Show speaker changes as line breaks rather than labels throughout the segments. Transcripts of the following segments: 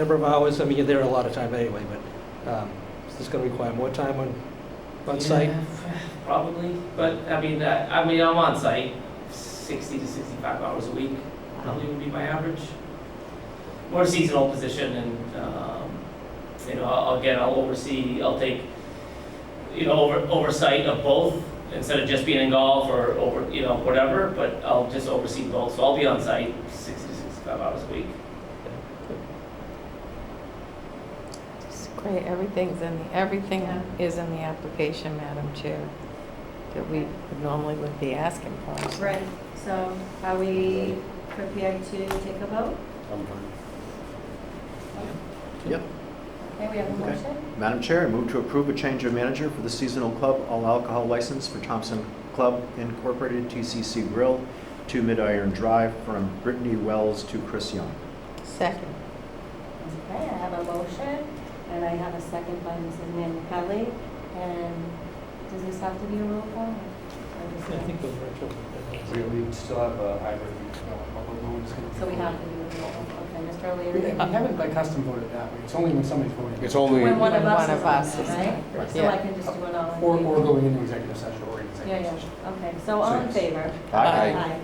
number of hours, I mean, you're there a lot of time anyway, but um, is this going to require more time on, on site?
Yeah, Probably, but I mean, I, I mean, I'm on site sixty to sixty-five hours a week, probably would be my average. More seasonal position and, um, you know, I'll, again, I'll oversee, I'll take, you know, over, oversight of both instead of just being in golf or over, you know, whatever, but I'll just oversee both, so I'll be on site sixty to sixty-five hours a week.
It's Great, everything's in, the everything is in the application, Madam Chair, that we normally would be asking for. so-
Right, so are we prepared to take a vote?
I'm fine.
Okay, we have a
Okay.
motion?
Madam Chair, I move to approve a change of manager for the seasonal club all alcohol license for Thompson Club Incorporated TCC Grill to Midiron Drive from Brittany Wells to Chris Young.
Second.
Okay, I have a motion, and I have a second by Mrs. Manu Pelli. And does this have to be a roll call? or
I
just-
think those
We,
are-
we still have a hybrid, uh, public vote. is gonna be-
So we have to do a roll call, okay, Mr.
We
O'Leary?
haven't by custom voted that way, it's only when somebody's voting.
It's only,
When one of
When
us
one
is
of us
on
is
there,
on
right?
it,
So
yeah.
I can just do it all. in
Or, or
favor.
going into executive session or in
Yeah,
executive session.
yeah, okay, so all in
Six.
favor?
Aye.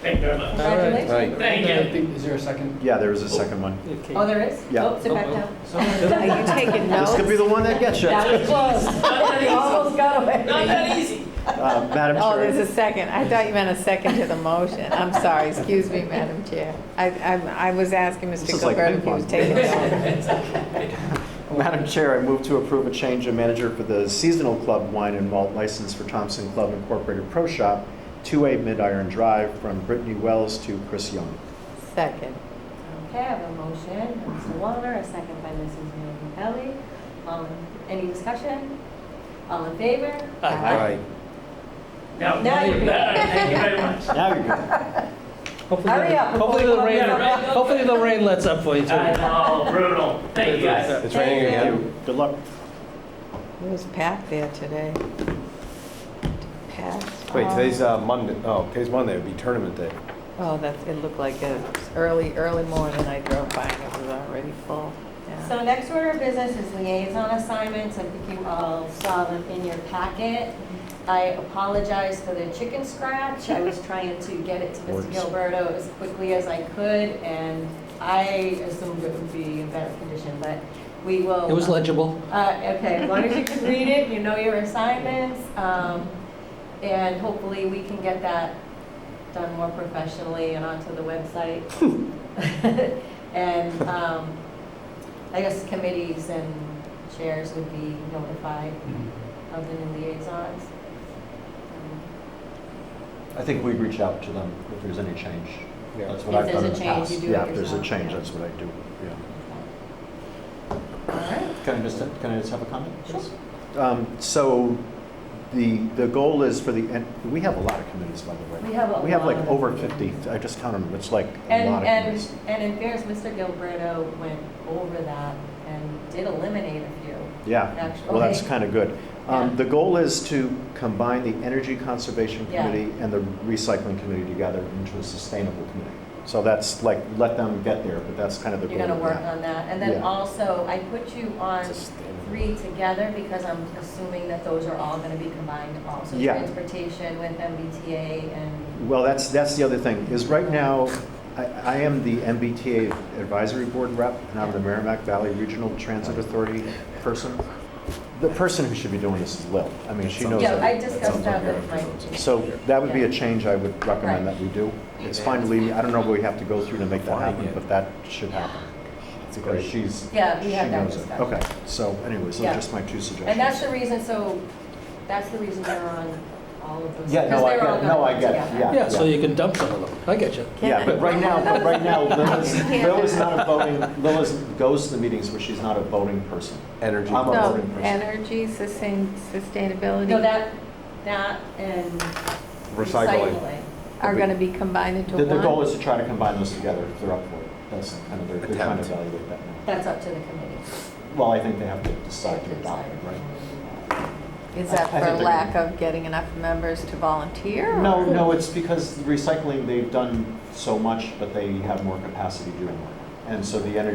Thank you very much.
Congratulations.
Aye.
Thank
I
you.
think- Is there a second?
Yeah, there is a second one.
Okay.
Oh, there is?
Yeah.
Oh, sit back down.
Are you taking
This could be
notes?
the one that gets you.
That was close.
Not that easy,
Almost got away.
not that easy.
Uh, Madam
Oh, there's
Chair,
a second. I thought you meant a second to the motion. I'm sorry, excuse me, Madam Chair. I, I, I was asking
This
Mr.
is like
Gilberto if he was
ping
taking notes.
Madam Chair, I move to approve a change of manager for the seasonal club wine and malt license for Thompson Club Incorporated Pro Shop to a Midiron Drive from Brittany Wells to Chris Young.
Second.
Okay, I have a motion, by Mr. Wallner, a second by Mrs. Manu Pelli. Um, Any discussion? All in favor?
Aye.
Now,
Now you're good.
thank you very much.
Now you're good.
Hopefully
Hurry
the-
up before
Hopefully
we
the
go
rain,
down. Right.
hopefully the rain lets up for you
I
too.
know, brutal. Thank you guys.
it's raining
Thank you.
again.
Good luck.
It was packed there today. Packed.
Um,
Wait, today's uh, Monday, oh, today's Monday, it'd be tournament day.
Oh, that's, it looked like it was early, early morning. I drove by and it was already full. Yeah.
So next order of business is liaison assignments. I think you all saw them in your packet. I apologize for the chicken scratch. I was trying to get it to Mr.
Works.
Gilberto as quickly as I could, and I assumed it would be in better condition, but we will.
It was legible.
Uh, Okay, as long as you can read it, you know your assignments, um, and hopefully we can get that done more professionally and onto the website. And um, I guess committees and chairs would be notified of the new liaisons.
I think we'd reach out to them if there's any change.
Yeah.
That's what
If
I've
there's
done
a
in the
change,
past.
you do it
Yeah, if there's a
yourself,
change,
yeah.
that's what I do, yeah.
Um, All right,
Can I just, can I just have a comment?
Sure.
Sure. Um, So the, the goal is for the, and we have a lot of committees, by the way.
we have a
We have like
lot of-
over 50, I just counted them, it's like a lot
And,
of
and,
committees.
and in fairness, Mr. Gilberto went over that and did eliminate a few.
Yeah,
Actually-
well, that's
okay.
kind of good.
Yeah.
Um, The goal is to combine the Energy Conservation
Yeah.
Committee and the Recycling Committee together into a sustainable committee. So that's like, let them get there, but that's kind of the goal
You're
of
gonna work
that.
on that, and then
Yeah.
also, I put you on three together because I'm assuming that those are all gonna be combined also.
Yeah.
Transportation with MBTA and,
Well, that's, that's the other thing, is right now, I, I am the MBTA Advisory Board rep, and I'm the Merrimack Valley Regional Transit Authority person. The person who should be doing this is Lil. I mean, she knows.
yeah,
everything.
I discussed that with Mike.
So that would be a
Yeah.
change I would recommend that we do. It's fine to leave, I don't know what we have to go through to make that happen, but that should happen. Because she's, she
Yeah, we had that
knows it.
discussion.
Okay, so anyways, those
Yeah.
are just my two suggestions.
And that's the reason, so, that's the reason they're on all of those.
Yeah, no,
because
I
they're all
get it. No,
gonna
I
go
get it.
together.
Yeah.
Yeah, so you can dump some of them. I get you.
Yeah, but right now, but right now, Lil is,
Yeah.
Lil is not a voting, Lil is, goes to the meetings where she's not a voting person.
Energy.
I'm a
No,
voting person.
energy, sustain, sustainability.
No, that, that and
Recycling.
recycling.
Are gonna be combined into
The,
one?
the goal is to try to combine those together if they're up for it. That's kind of, their- they're trying to
Attempt.
evaluate that now.
That's up to the committee.
Well, I think they have to decide to adopt it, right?
Is that
I- I think
for
they're
lack of getting enough members to volunteer? or-
No, no, it's because recycling, they've done so much, but they have more capacity doing it. And so the energy